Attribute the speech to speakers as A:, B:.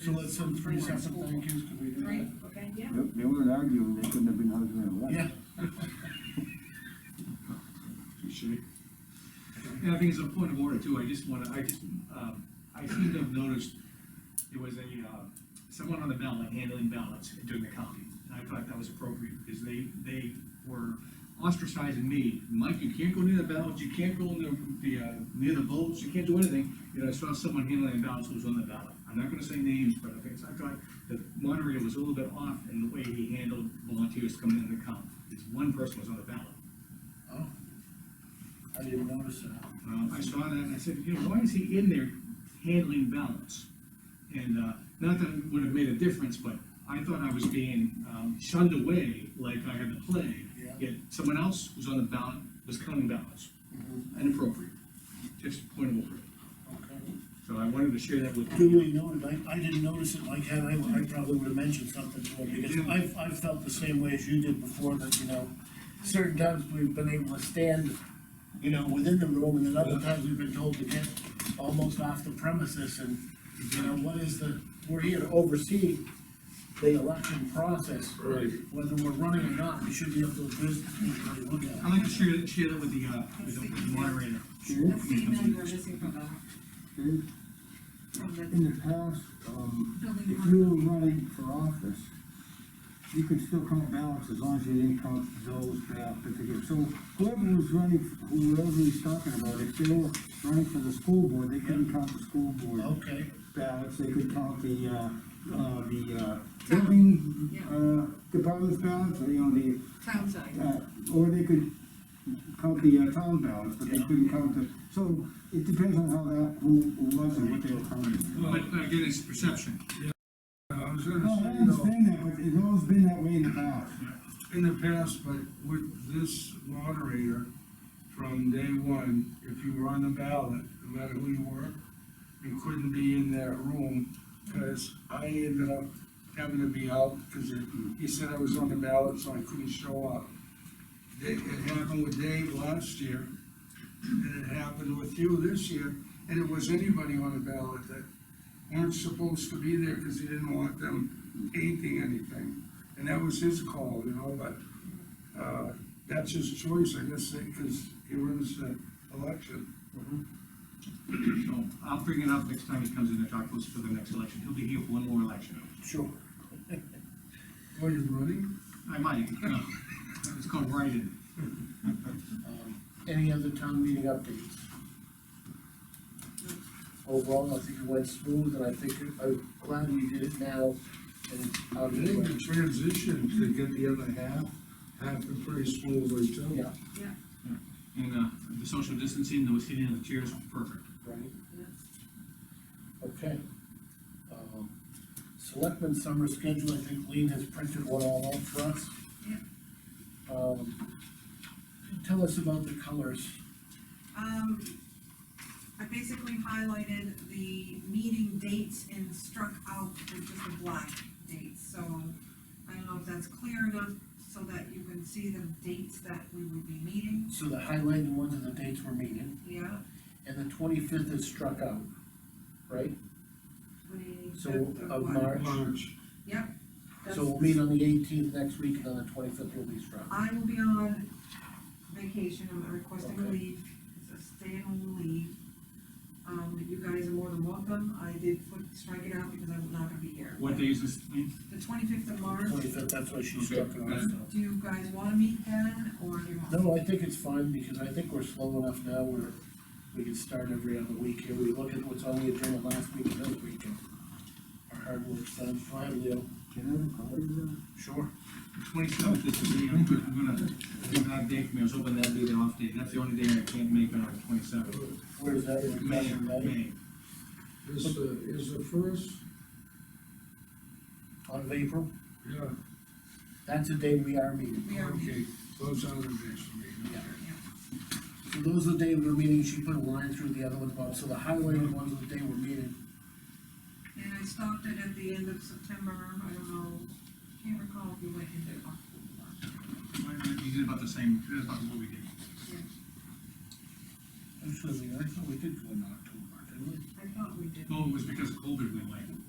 A: So let's send three separate thank yous, could we do
B: Great,
A: that?
B: okay, yeah.
C: Yep, They were arguing, they couldn't have been husband and wife.
A: Yeah,
D: And I think it's a point of order too, I just wanna, I just, um, I seem to have noticed there was a, uh, someone on the ballot handling ballots during the counting. And I thought that was appropriate, because they, they were ostracizing me, Mike, you can't go near the ballots, you can't go near the, uh, near the votes, you can't do anything. You know, I saw someone handling ballots who was on the ballot, I'm not gonna say names, but I think, I thought the moderator was a little bit off in the way he handled volunteers coming in to count. This one person was on the ballot.
A: oh. I didn't notice that.
D: Uh, I saw that, and I said, you know, why is he in there handling balance? And, uh, not that it would have made a difference, but I thought I was being, um, shunned away like I had the plague.
A: Yeah.
D: Yet someone else who's on the ballot was counting ballots,
A: Mhm.
D: inappropriate, just point of order.
A: Okay.
D: So I wanted to share that with you.
A: Duly noted, I, I didn't notice it, like, had I, I probably would have mentioned something to him, because I've, I've felt the same way as you did before, that, you know, certain times we've been able to stand, you know, within the room, and then other times we've been told to get almost off the premises, and, you know, what is the, we're here to oversee the election process.
E: Right.
A: Whether we're running or not, we should be able to, just, look at it.
D: I'd like to share, share that with the, uh, with the with the moderator.
B: That's the email you were missing from the,
C: Okay?
B: from the
C: In the past, um,
B: building.
C: if you were running for office, you could still count ballots as long as you didn't count those for that particular. So whoever was running, whoever he's talking about, if they were running for the school board, they couldn't count the school board
A: Okay,
C: ballots, they could count the, uh, uh, the, uh, building,
B: Yeah.
C: uh, department's ballots, or, you know, the,
B: Town side,
C: Uh, or they could count the uh, town balance, but they couldn't count the, so it depends on how that, who who was and what they were counting.
D: But uh, again, it's perception.
E: I was
C: No,
E: gonna
C: I
E: say, you know,
C: understand that, but it's always been that way in the past.
E: in the past, but with this moderator, from day one, if you were on the ballot, no matter who you were, you couldn't be in that room, because I ended up having to be out, because he said I was on the ballot, so I couldn't show up. It, it happened with Dave last year, and it happened with you this year, and it was anybody on the ballot that weren't supposed to be there, because he didn't want them painting anything. And that was his call, you know, but uh, that's his choice, I guess, because he runs the election.
D: So I'll bring it up next time he comes in to talk to us for the next election. He'll be here for one more election.
A: sure.
E: Are you running?
D: I might, no. It's called write-in.
A: Um, Any other town meeting updates? Overall, I think it went smooth, and I think, it- I'm glad we did it now, and it's
E: I
A: out of the
E: think
A: way.
E: the transition to get the other half happened pretty smoothly too.
A: Yeah,
B: yeah,
D: And, uh, the social distancing, the seating on the chairs, perfect.
A: right,
B: yeah.
A: okay. Um, Selectmen summer schedule, I think Lean has printed one all out for us.
B: Yeah.
A: Um, tell us about the colors.
B: Um, I basically highlighted the meeting dates and struck out the just the black dates, so I don't know if that's clear enough so that you can see the dates that we would be meeting,
A: So the highlighted ones are the dates we're meeting,
B: yeah,
A: and the twenty-fifth is struck out, right? So,
B: twenty-fifth
A: of
B: of what?
A: March.
E: March,
B: Yep. that's-
A: So we'll meet on the eighteenth next week, and then the twenty-fifth will be struck.
B: I will be on vacation, I'm requesting
A: Okay.
B: leave, it's a stay-at-home leave. Um, you guys are more than welcome, I did put, strike it out because I'm not gonna be here.
D: What day is this thing?
B: The twenty-fifth of March.
A: Twenty-fifth, that's why she
D: Okay.
A: struck it off. so.
B: Do you guys wanna meet then, or do you want?
A: No, I think it's fine, because I think we're slow enough now where we can start every other week here, we look at what's on the agenda last week and this week, and our hard work's done, Go ahead, Leo.
C: Can I have a copy of
E: uh,
C: that?
A: Sure.
D: Twenty-seventh is the day, I'm gonna, I'm gonna, give that day for me, I was hoping that'd be the off day, that's the only day I can't make on the twenty-seventh.
A: Where's that? We're
D: May,
A: talking about it.
D: May,
E: is, uh, is the first,
A: On of April,
E: yeah,
A: that's the day we are meeting.
B: We are,
E: okay, those are the days for me.
A: Yeah. So those are the day we're meeting, she put a line through the other ones, Bob, so the highlighted ones are the day we're meeting.
B: and I stopped it at the end of September, I don't know, can't recall if we went into October.
D: you did about the same, that's about what we did.
B: Yeah,
A: Actually, I thought we did go in October, didn't we?
B: I thought we did.
D: Oh, it was because of COVID we went.